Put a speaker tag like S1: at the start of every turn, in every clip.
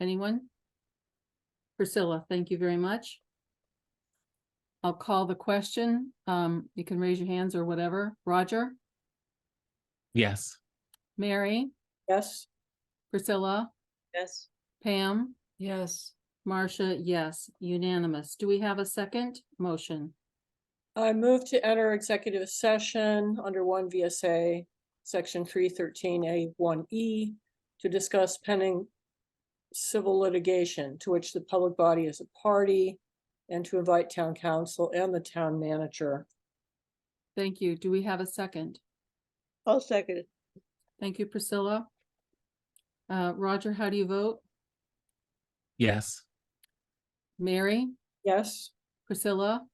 S1: Anyone? Priscilla, thank you very much. I'll call the question. Um, you can raise your hands or whatever. Roger,
S2: Yes.
S1: Mary,
S3: Yes.
S1: Priscilla,
S3: Yes.
S1: Pam,
S3: Yes.
S1: Marcia, yes, unanimous. Do we have a second motion?
S3: I move to enter executive session under one VSA, section three thirteen A one E to discuss pending civil litigation to which the public body is a party and to invite town council and the town manager.
S1: Thank you. Do we have a second?
S4: I'll second it.
S1: Thank you, Priscilla. Uh, Roger, how do you vote?
S2: Yes.
S1: Mary,
S3: Yes?
S1: Priscilla,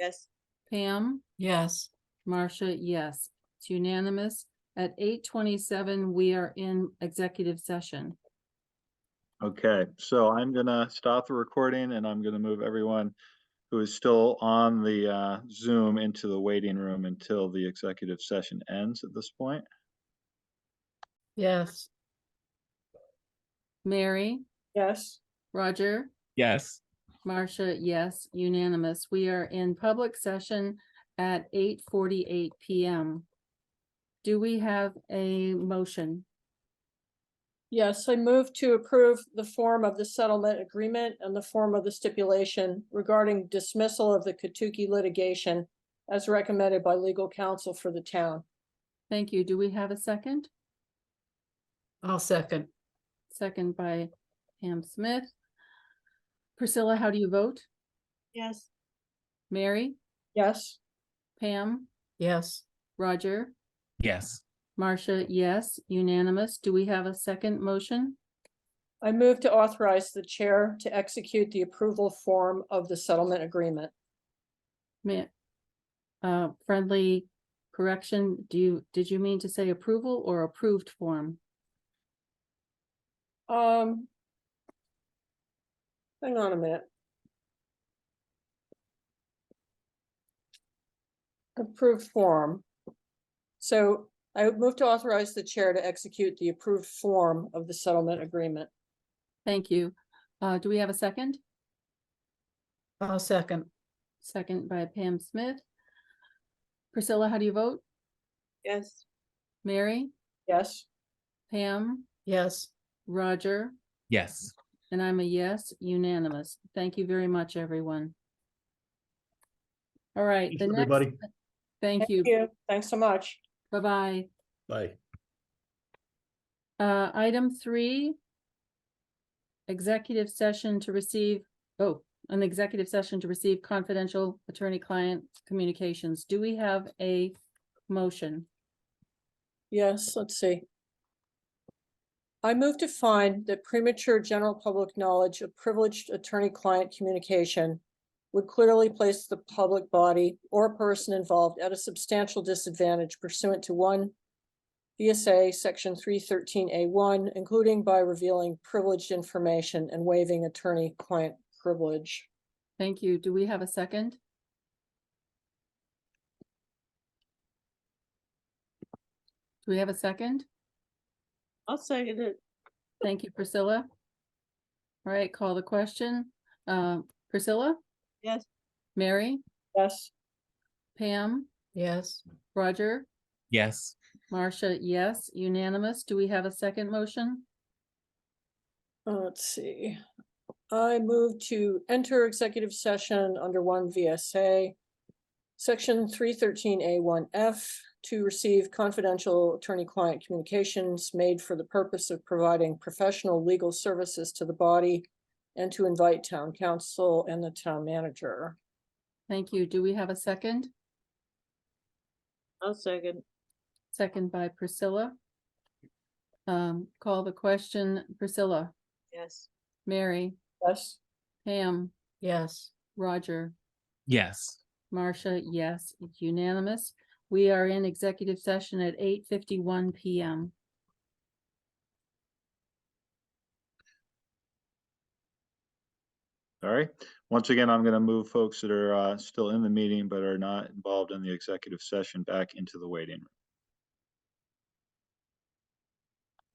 S4: Yes.
S1: Pam?
S3: Yes.
S1: Marcia, yes. It's unanimous. At eight twenty-seven, we are in executive session.
S5: Okay, so I'm gonna stop the recording and I'm gonna move everyone who is still on the uh, Zoom into the waiting room until the executive session ends at this point.
S3: Yes.
S1: Mary,
S3: Yes.
S1: Roger,
S2: Yes.
S1: Marcia, yes, unanimous. We are in public session at eight forty-eight PM. Do we have a motion?
S3: Yes, I move to approve the form of the settlement agreement and the form of the stipulation regarding dismissal of the Katuki litigation as recommended by legal counsel for the town.
S1: Thank you. Do we have a second?
S6: I'll second.
S1: Second by Pam Smith. Priscilla, how do you vote?
S4: Yes.
S1: Mary,
S3: Yes?
S1: Pam,
S6: Yes,
S1: Roger?
S2: Yes.
S1: Marcia, yes, unanimous. Do we have a second motion?
S3: I move to authorize the chair to execute the approval form of the settlement agreement.
S1: Ma- Uh, friendly correction, do you, did you mean to say approval or approved form?
S3: Um. Hang on a minute. Approved form. So I would move to authorize the chair to execute the approved form of the settlement agreement.
S1: Thank you. Uh, do we have a second?
S6: I'll second.
S1: Second by Pam Smith. Priscilla, how do you vote?
S4: Yes.
S1: Mary,
S3: Yes?
S1: Pam,
S6: Yes,
S1: Roger,
S2: Yes.
S1: and I'm a yes, unanimous. Thank you very much, everyone. All right, the
S7: Thanks,
S1: next,
S7: everybody.
S1: thank you.
S3: Thanks so much.
S1: Bye-bye.
S7: Bye.
S1: Uh, item three. Executive session to receive, oh, an executive session to receive confidential attorney-client communications. Do we have a motion?
S3: Yes, let's see. I move to find that premature general public knowledge of privileged attorney-client communication would clearly place the public body or person involved at a substantial disadvantage pursuant to one VSA Section three thirteen A one, including by revealing privileged information and waiving attorney-client privilege.
S1: Thank you. Do we have a second? Do we have a second?
S4: I'll second it.
S1: Thank you, Priscilla. All right, call the question. Uh, Priscilla,
S4: Yes.
S1: Mary,
S3: Yes?
S1: Pam,
S6: yes,
S1: Roger?
S2: Yes.
S1: Marcia, yes, unanimous. Do we have a second motion?
S3: Uh, Let's see. I move to enter executive session under one VSA. Section three thirteen A one F to receive confidential attorney-client communications made for the purpose of providing professional legal services to the body and to invite town council and the town manager.
S1: Thank you. Do we have a second?
S4: I'll second.
S1: Second by Priscilla. Um, call the question, Priscilla,
S4: Yes.
S1: Mary,
S3: Yes?
S1: Pam,
S6: yes.
S1: Roger,
S2: Yes.
S1: Marcia, yes, it's unanimous. We are in executive session at eight fifty-one PM.
S5: All right, once again, I'm gonna move folks that are uh, still in the meeting but are not involved in the executive session back into the waiting room.